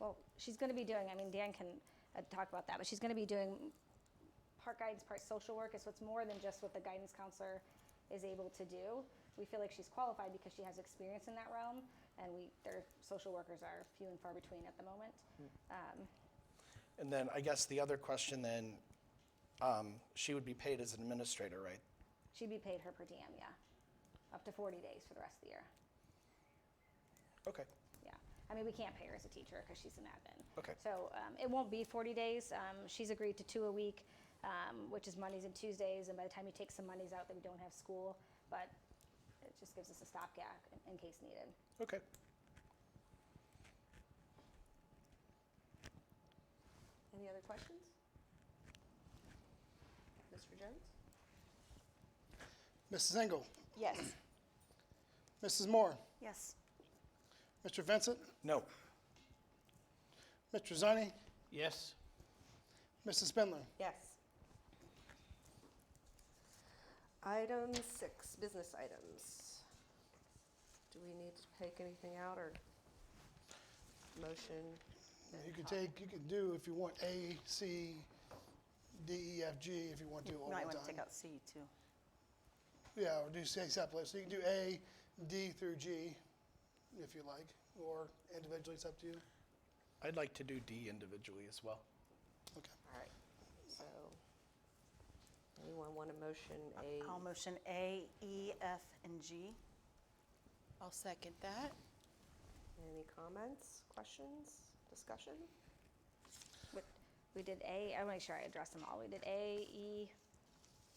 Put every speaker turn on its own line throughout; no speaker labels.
well, she's going to be doing, I mean, Dan can uh, talk about that, but she's going to be doing part guidance, part social work. It's what's more than just what the guidance counselor is able to do. We feel like she's qualified because she has experience in that realm, and we, their social workers are few and far between at the moment.
And then I guess the other question then, um, she would be paid as an administrator, right?
She'd be paid her per diem, yeah, up to 40 days for the rest of the year.
Okay.
Yeah, I mean, we can't pay her as a teacher because she's an admin.
Okay.
So um, it won't be 40 days. Um, she's agreed to two a week, um, which is Mondays and Tuesdays. And by the time you take some Mondays out, that we don't have school, but it just gives us a stopgap in, in case needed.
Okay.
Any other questions? Mr. Jones?
Mrs. Engel,
Yes.
Mrs. Moore,
Yes.
Mr. Vincent,
No.
Mr. Zani,
Yes.
Mrs. Spindler.
Yes. Item six, business items. Do we need to take anything out or motion?
You can take, you can do if you want A, C, D, E, F, G, if you want to all
You
the
might
time.
want to take out C too.
Yeah, or do say separately. So you can do A, D through G, if you like, or individually, it's up to you.
I'd like to do D individually as well.
Okay.
All right, so anyone want a motion A?
I'll motion A, E, F, and G.
I'll second that.
Any comments, questions, discussion?
But we did A, I want to make sure I address them all. We did A, E,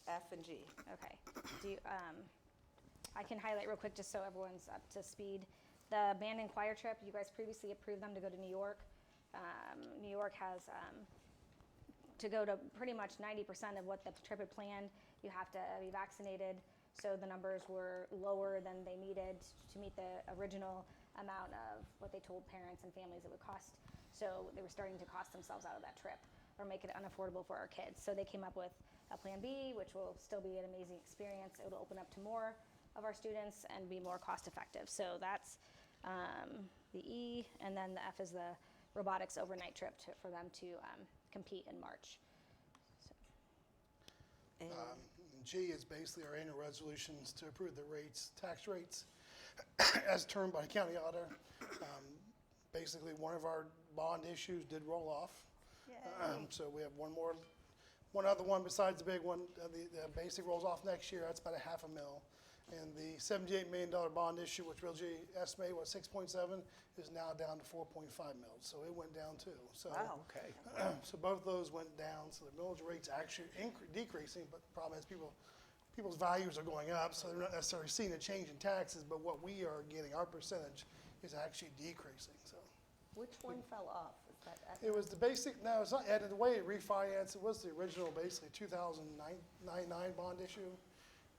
F and G.
Okay. Do you, um, I can highlight real quick just so everyone's up to speed. The band and choir trip, you guys previously approved them to go to New York. Um, New York has, um, to go to pretty much 90% of what the trip had planned, you have to be vaccinated. So the numbers were lower than they needed to meet the original amount of what they told parents and families it would cost. So they were starting to cost themselves out of that trip or make it unaffordable for our kids. So they came up with a plan B, which will still be an amazing experience. It'll open up to more of our students and be more cost effective. So that's um, the E, and then the F is the robotics overnight trip to, for them to um, compete in March.
And
Um, G is basically our annual resolutions to approve the rates, tax rates, as determined by the county auditor. Um, Basically, one of our bond issues did roll off. Um, So we have one more, one other one besides the big one, uh, the, the basic rolls off next year, that's about a half a mil. And the seventy-eight million dollar bond issue, which Real G estimated was six point seven, is now down to four point five mils, so it went down too, so.
Wow.
Okay.
So both of those went down, so the millage rate's actually incre- decreasing, but the problem is people, people's values are going up, so they're not necessarily seeing a change in taxes, but what we are getting, our percentage, is actually decreasing, so.
which one fell off? Is that F?
It was the basic, no, it's not, and the way it refinanced, it was the original, basically, 2009 bond issue,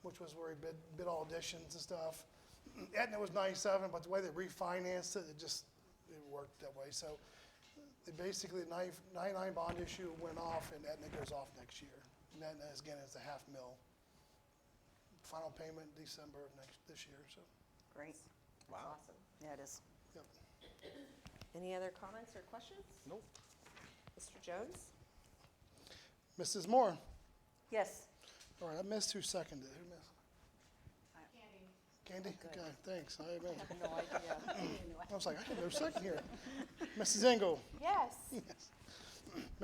which was where he bid, bid all additions and stuff. Aetna was 97, but the way they refinanced it, it just, it worked that way. So they basically, the 99 bond issue went off, and Aetna goes off next year. And Aetna, is, again, is a half mil. Final payment December of next, this year, so,
Great.
Wow. Awesome.
Yeah, it is.
yep.
Any other comments or questions?
Nope.
Mr. Jones?
Mrs. Moore,
Yes.
all right, I missed who seconded, it. who missed? Candy? Okay, thanks. I amen.
No idea.
I was like, I have no second here. Mrs. Engel,
Yes.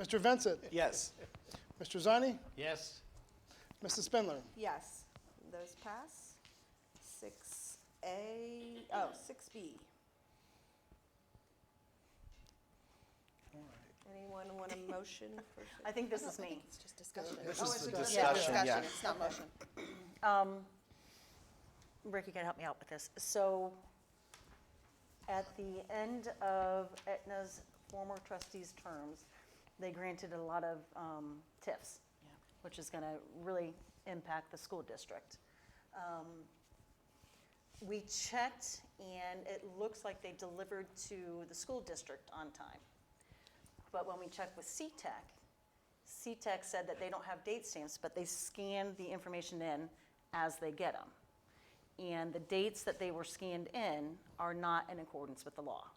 Mr. Vincent,
Yes.
Mr. Zani,
Yes.
Mrs. Spindler.
Yes, those pass. Six A, oh, six B. Anyone want a motion for?
I think this is me.
It's just discussion.
This
Oh,
is
it's
the
a dis-
discussion, yeah.
It's not motion.
Rick, Um, you gotta help me out with this. So at the end of Aetna's former trustees' terms, they granted a lot of um, TIFs,
Yeah.
which is gonna really impact the school district. Um, We checked, and it looks like they delivered to the school district on time. But when we checked with E CTEC, CTEC E said that they don't have date stamps, but they scan the information in as they get them. And the dates that they were scanned in are not in accordance with the law.